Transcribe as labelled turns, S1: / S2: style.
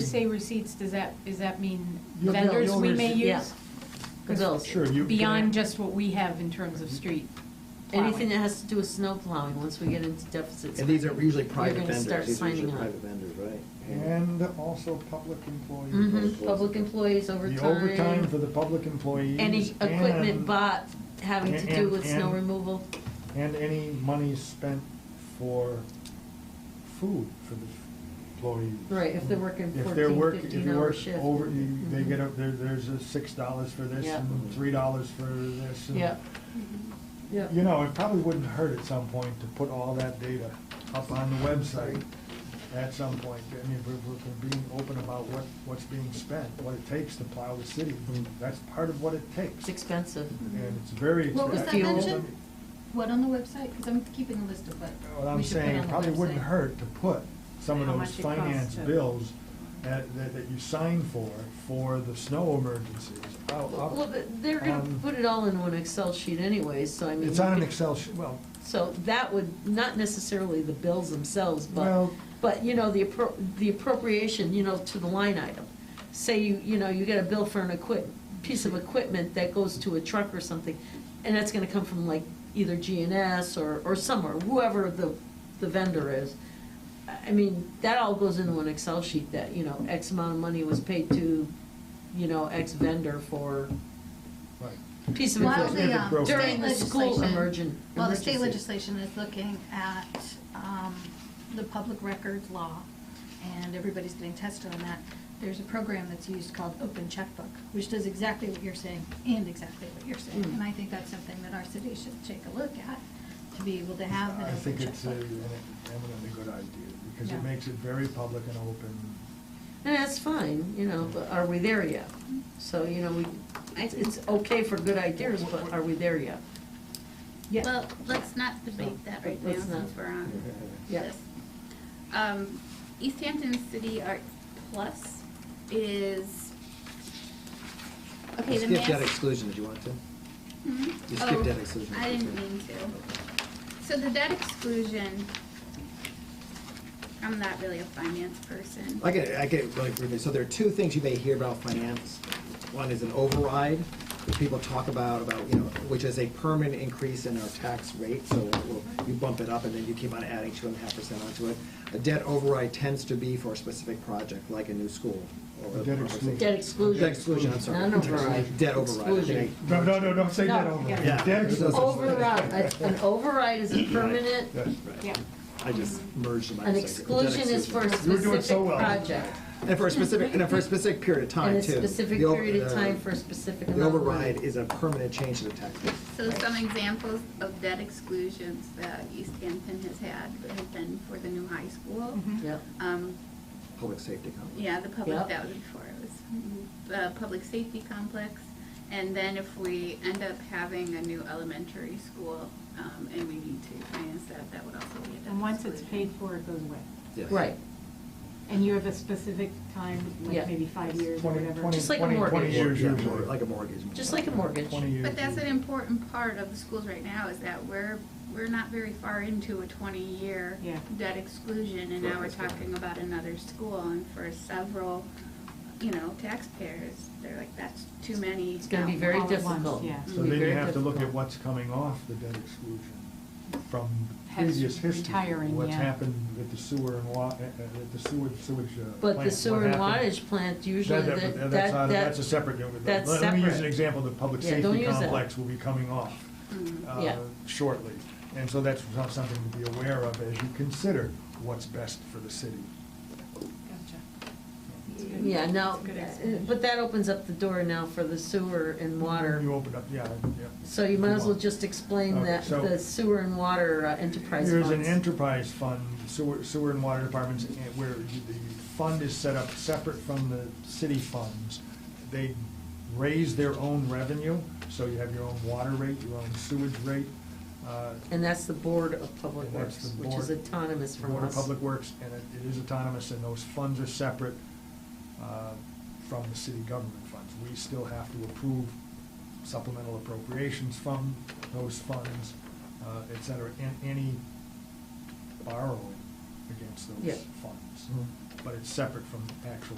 S1: say receipts, does that, does that mean
S2: Your bill,
S1: vendors
S2: your
S1: we may
S2: receipt,
S1: use?
S2: yeah. The
S1: 'Cause
S2: bills.
S3: Sure, you.
S1: Beyond just what we have in terms of street plowing.
S2: Anything that has to do with snow plowing, once we get into deficits.
S4: And these are usually private
S2: You're gonna
S4: vendors.
S2: start
S4: These are
S2: signing
S4: usually
S2: up.
S4: private vendors, right?
S3: And also public employees.
S2: hmm public employees overtime.
S3: The overtime for the public employees.
S2: Any equipment
S3: and-
S2: bought having to do
S3: and-
S2: with snow
S3: and-
S2: removal.
S3: And any money spent for food for the employees.
S2: Right, if they're working
S3: If
S2: 14,
S3: they're work- if
S2: 15
S3: you
S2: hour
S3: work
S2: shift.
S3: Over, you, they
S2: Mhm.
S3: get, a- there, there's a six dollars for this
S2: Yeah.
S3: and three dollars for this. and-
S2: Yeah.
S5: Mm-hmm.
S2: Yeah.
S3: You know, it probably wouldn't hurt at some point to put all that data up on the website at some point. I mean, we're, we're being open about what, what's being spent, what it takes to plow the city.
S4: Mm.
S3: That's part of what it takes.
S2: It's expensive.
S3: And it's very expensive.
S5: What was
S2: that
S5: mentioned? What, on the website? Because I'm keeping a list of what.
S3: What
S5: we
S3: I'm
S5: should put
S3: saying,
S5: on
S3: it
S5: the
S3: probably wouldn't
S5: website.
S3: hurt to put some of
S6: How
S3: those
S6: much it costs
S3: finance
S6: to-
S3: bills that, that that you sign for, for the snow emergencies. I'll- I'll-
S2: Well, but they're gonna
S3: um,
S2: put it all in one Excel sheet anyway, so I mean.
S3: It's
S2: you
S3: on an
S2: could-
S3: Excel sheet, well,
S2: So that would, not necessarily the bills themselves, but,
S3: Well-
S2: but, you know, the appro, the appropriation, you know, to the line item. Say you, you know, you get a bill for an equip, piece of equipment that goes to a truck or something, and that's gonna come from like either GNS or, or somewhere, whoever the, the vendor is. I- I mean, that all goes into an Excel sheet that, you know, X amount of money was paid to, you know, X vendor for
S3: right.
S2: piece of
S3: Well,
S5: While
S3: it's
S5: the
S3: never
S5: um,
S3: broken.
S2: uh, During
S5: state
S2: the school
S5: legislation-
S2: emergent-
S5: While the state
S2: emergency.
S5: legislation is looking at um, the public records law, and everybody's getting tested on that, there's a program that's used called Open Checkbook, which does exactly what you're saying and exactly what you're saying.
S2: Mm.
S5: And I think that's something that our city should take a look at, to be able to have an
S3: I
S5: open
S3: think it's a-
S5: checkbook.
S3: an eminently good idea, because
S5: Yeah.
S3: it makes it very public and open.
S2: And that's fine, you know, but are we there yet? So, you know, we, it's, it's okay for good ideas, but are we there yet?
S7: Well, let's not debate that right now
S2: Let's not.
S7: since we're on
S2: Yeah.
S7: this. Um, East Hampton City Arts Plus is, okay,
S4: You
S7: the
S4: Skip that
S7: mass.
S4: exclusion, did you want to?
S7: Hmm?
S4: You skipped
S7: Oh,
S4: that exclusion.
S7: I didn't mean to. So the debt exclusion, I'm not really a finance person.
S4: I get, it- I get it really briefly. So there are two things you may hear about finance. One is an override, which people talk about, about, you know, which is a permanent increase in our tax rate. So we'll- you bump it up and then you keep on adding two and a half percent onto it. A debt override tends to be for a specific project, like a new school. or
S3: A debt
S4: or-
S3: exclusion.
S2: Debt exclusion.
S4: Debt exclusion, I'm sorry.
S2: Not an override.
S4: Debt override.
S2: Exclusion.
S3: No, no, no, don't say that
S2: No.
S3: over.
S4: Yeah.
S3: Debt exclusion.
S2: Override, a- an override is a permanent,
S3: Yes.
S4: Right. I just merged my.
S2: an exclusion is for a
S3: You were doing so
S2: specific
S3: well.
S2: project.
S4: And for a specific, and for a specific period of time,
S2: And
S4: too.
S2: a specific
S4: The o-
S2: period of
S4: the-
S2: time for a specific
S4: The
S2: amount of
S4: override
S2: money.
S4: is a permanent change to the tax rate.
S7: So some examples of debt exclusions that East Hampton has had have been for the new high school.
S2: Yep.
S7: Um,
S4: Public safety company.
S7: Yeah, the
S2: Yep.
S7: public, that was before, it was the public safety complex. And then if we end up having a new elementary school, um, and we need to finance that, that would also be a debt
S6: And once it's paid
S7: exclusion.
S6: for, it goes away.
S4: Yes.
S2: Right,
S6: And you have a specific time,
S2: Yeah.
S6: like maybe five years or
S3: Twenty-
S6: whatever.
S3: twenty-
S2: Just like a
S3: twenty- twenty
S2: mortgage.
S3: years
S4: Yeah,
S3: usually.
S4: Like a mortgage.
S2: just like a mortgage.
S3: Twenty years.
S7: But that's an
S3: usually.
S7: important part of the schools right now, is that we're, we're not very far into a twenty-year
S6: Yeah.
S7: debt exclusion, and now we're talking about another school, and for several, you know, taxpayers, they're like, that's too many.
S2: It's gonna be
S7: out
S2: very
S6: All at once,
S2: difficult.
S6: yeah.
S2: It's
S3: So
S2: gonna be
S3: then you
S2: very
S3: have to look at
S2: difficult.
S3: what's coming off the debt exclusion from
S6: Has
S3: previous history.
S6: retiring,
S3: What's
S6: yeah.
S3: happened with the sewer and wa, uh, uh, the sewer, sewage. uh,
S2: But
S3: plant,
S2: the
S3: what
S2: sewer and
S3: happened.
S2: wattage plant, usually
S3: That-
S2: that,
S3: that-
S2: that,
S3: That's, not-
S2: that.
S3: that's a separate, let
S2: that's
S3: let me use an
S2: separate.
S3: example, the public
S2: Yeah, don't
S3: safety
S2: use that. Mm.
S3: complex will be coming off uh,
S2: Yeah.
S3: shortly. And so that's some- something to be aware of as you consider what's best for the city.
S2: Yeah, now,
S6: It's a good
S2: uh, but that opens up the door now for the sewer and water.
S3: You opened up, yeah, yeah.
S2: So you might as well just explain
S3: Okay,
S2: that
S3: so-
S2: the sewer and water uh, enterprise
S3: There's an
S2: funds.
S3: enterprise fund, sewer, sewer and water departments, eh, where you- the fund is set up separate from the city funds. They raise their own revenue, so you have your own water rate, your own sewage rate. uh,
S2: And that's the Board of Public
S3: and that's
S2: Works,
S3: the
S2: which is
S3: board-
S2: autonomous from
S3: Board of
S2: us.
S3: Public Works, and it it is autonomous, and those funds are separate uh, from the city government funds. We still have to approve supplemental appropriations from those funds, uh, et cetera, and any borrowing against
S2: Yeah. Mm-hmm.
S3: those funds. But it's separate from actual